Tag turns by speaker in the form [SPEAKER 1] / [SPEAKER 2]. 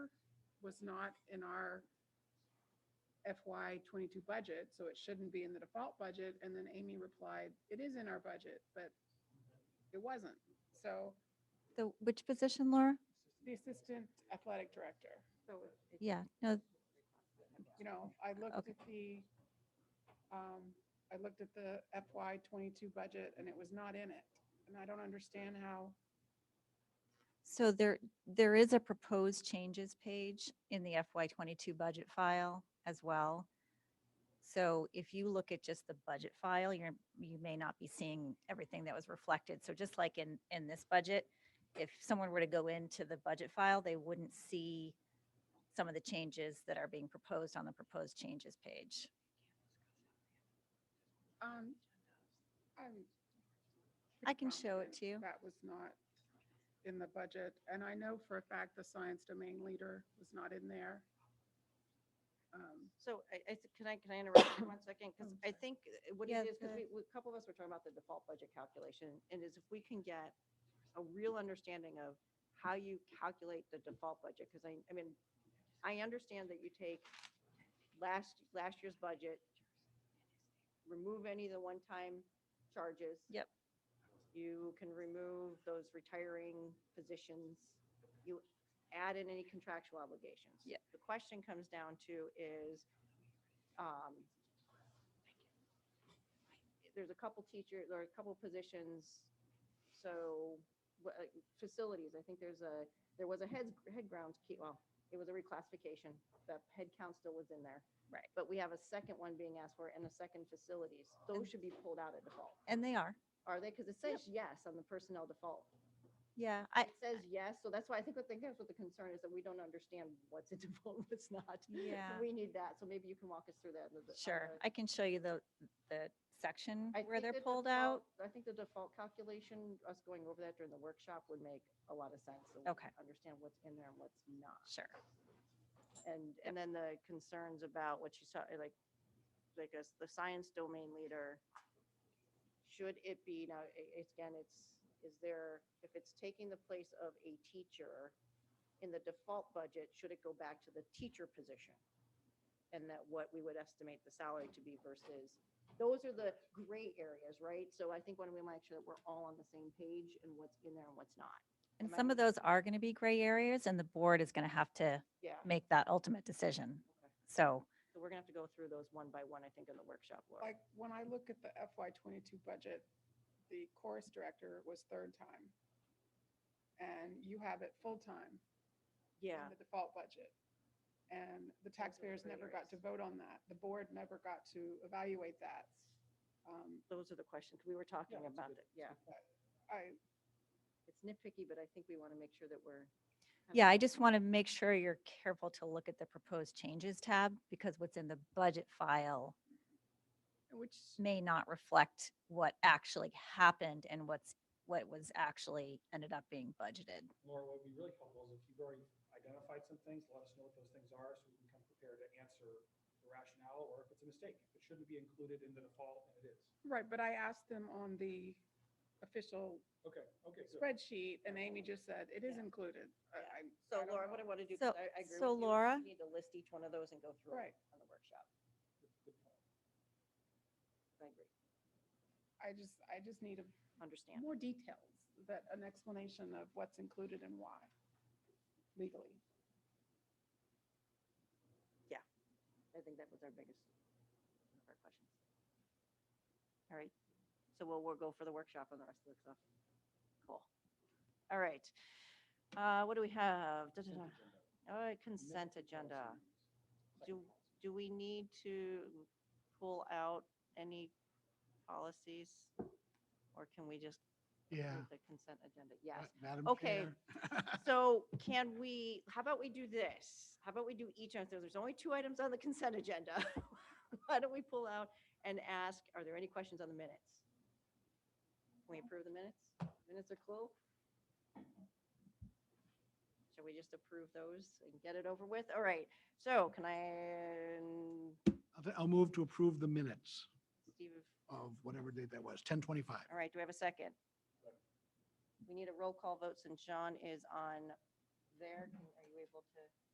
[SPEAKER 1] was not in our FY twenty-two budget, so it shouldn't be in the default budget. And then Amy replied, it is in our budget, but it wasn't. So
[SPEAKER 2] The, which position, Laura?
[SPEAKER 1] the assistant athletic director,
[SPEAKER 3] So it- it-
[SPEAKER 2] Yeah, no,
[SPEAKER 1] you know, I looked
[SPEAKER 2] Okay.
[SPEAKER 1] at the, um, I looked at the FY twenty-two budget and it was not in it. And I don't understand how,
[SPEAKER 2] so there, there is a proposed changes page in the FY twenty-two budget file as well. So if you look at just the budget file, you're, you may not be seeing everything that was reflected. So just like in, in this budget, if someone were to go into the budget file, they wouldn't see some of the changes that are being proposed on the proposed changes page.
[SPEAKER 1] um, I'm.
[SPEAKER 2] I can show it
[SPEAKER 1] confident
[SPEAKER 2] to you.
[SPEAKER 1] That was not in the budget, and I know for a fact the science domain leader was not in there. Um,
[SPEAKER 3] So I, I, th- can I, can I interrupt you one second? Because
[SPEAKER 1] I'm
[SPEAKER 3] I
[SPEAKER 1] sorry.
[SPEAKER 3] think uh, what
[SPEAKER 2] Yeah,
[SPEAKER 3] it is, because
[SPEAKER 2] go
[SPEAKER 3] we, we- a couple of us were talking about the default budget calculation, and is if we can get a real understanding of how you calculate the default budget, because I, I mean, I understand that you take last, last year's budget, remove any of the one-time charges.
[SPEAKER 2] Yep.
[SPEAKER 3] You can remove those retiring positions. You add in any contractual obligations.
[SPEAKER 2] Yep.
[SPEAKER 3] The question comes down to is, um, there's a couple teachers, or a couple positions, so, wha- uh, facilities, I think there's a, there was a heads, head grounds, key- well, it was a reclassification, the head count still was in there.
[SPEAKER 2] Right.
[SPEAKER 3] But we have a second one being asked for and a second facilities. Those should be pulled out at default.
[SPEAKER 2] And they are.
[SPEAKER 3] Are they? Because it says yes on the personnel default.
[SPEAKER 2] Yeah, I,
[SPEAKER 3] It says yes, so that's why I think, what- I think that's what the concern is, that we don't understand what's in default, and what's not.
[SPEAKER 2] Yeah.
[SPEAKER 3] We need that, so maybe you can walk us through that. on the- on
[SPEAKER 2] Sure,
[SPEAKER 3] the-
[SPEAKER 2] I can show you the, the section
[SPEAKER 3] I
[SPEAKER 2] where
[SPEAKER 3] think
[SPEAKER 2] they're
[SPEAKER 3] the
[SPEAKER 2] pulled out.
[SPEAKER 3] default- I think the default calculation, us going over that during the workshop would make a lot of sense. so we
[SPEAKER 2] Okay.
[SPEAKER 3] Understand what's in there and what's not.
[SPEAKER 2] Sure,
[SPEAKER 3] And, and then the concerns about what you saw, like, like as the science domain leader, should it be, now, a- it's- again, it's, is there, if it's taking the place of a teacher in the default budget, should it go back to the teacher position? And that what we would estimate the salary to be versus, those are the gray areas, right? So I think when we make sure that we're all on the same page and what's in there and what's not.
[SPEAKER 2] and
[SPEAKER 3] Am I
[SPEAKER 2] some of
[SPEAKER 3] making-
[SPEAKER 2] those are going to be gray areas and the board is going to have to
[SPEAKER 3] Yeah,
[SPEAKER 2] make that ultimate decision.
[SPEAKER 3] Okay.
[SPEAKER 2] So,
[SPEAKER 3] so we're gonna have to go through those one by one, I think, in the workshop, Laura.
[SPEAKER 1] Like, when I look at the FY twenty-two budget, the chorus director was third time. And you have it full-time in
[SPEAKER 3] Yeah.
[SPEAKER 1] the default budget. And the taxpayers never got to vote on that. The board never got to evaluate that. Um,
[SPEAKER 3] those are the questions, we were talking
[SPEAKER 1] that's a
[SPEAKER 3] about
[SPEAKER 1] good-
[SPEAKER 3] it, yeah.
[SPEAKER 1] I,
[SPEAKER 3] It's nitpicky, but I think we want to make sure that we're. kinda-
[SPEAKER 2] yeah, I just want to make sure you're careful to look at the proposed changes tab because what's in the budget file
[SPEAKER 1] which,
[SPEAKER 2] may not reflect what actually happened and what's, what was actually ended up being budgeted.
[SPEAKER 4] Laura, what would be really helpful is if you've already identified some things, let us know what those things are so we can come prepared to answer the rationale or if it's a mistake. If it shouldn't be included in the default, and it is.
[SPEAKER 1] right, but I asked them on the official
[SPEAKER 4] Okay, okay, good.
[SPEAKER 1] spreadsheet and Amy just said it is
[SPEAKER 3] Yeah.
[SPEAKER 1] included. I-
[SPEAKER 3] Yeah.
[SPEAKER 1] I'm- I
[SPEAKER 3] So
[SPEAKER 1] don't
[SPEAKER 3] Laura,
[SPEAKER 1] know.
[SPEAKER 3] what I want to do, 'cause
[SPEAKER 2] So-
[SPEAKER 3] I I agree with you.
[SPEAKER 2] so
[SPEAKER 3] we
[SPEAKER 2] Laura-
[SPEAKER 3] Need to list each one of those and go through it
[SPEAKER 1] Right.
[SPEAKER 3] on the workshop,
[SPEAKER 4] Good point.
[SPEAKER 3] I agree,
[SPEAKER 1] I just, I just need a-
[SPEAKER 3] understand.
[SPEAKER 1] more details, that, an explanation of what's included and why legally.
[SPEAKER 3] I think that was our biggest, one of our questions. All right, so we'll, we'll go for the workshop on the rest of the stuff. Cool. All right, Uh, what do we have? Da, da, da. All right, Oh, consent agenda. Do, do we need to pull out any policies? Or can we just
[SPEAKER 5] Yeah.
[SPEAKER 3] approve the consent agenda? Yes.
[SPEAKER 5] Ma- Madam
[SPEAKER 3] Okay.
[SPEAKER 5] Chair.
[SPEAKER 3] So can we, how about we do this? How about we do each, item? So there's only two items on the consent agenda. Why don't we pull out and ask, are there any questions on the minutes? Can we approve the minutes? Minutes are cool? Shall we just approve those and get it over with? All right, so can I,
[SPEAKER 5] I'll t- I'll move to approve the minutes
[SPEAKER 3] Steve,
[SPEAKER 5] of whatever date that was, 1025.
[SPEAKER 3] all right, do we have a second? We need a roll call vote since John is on there. Can- Are you able to?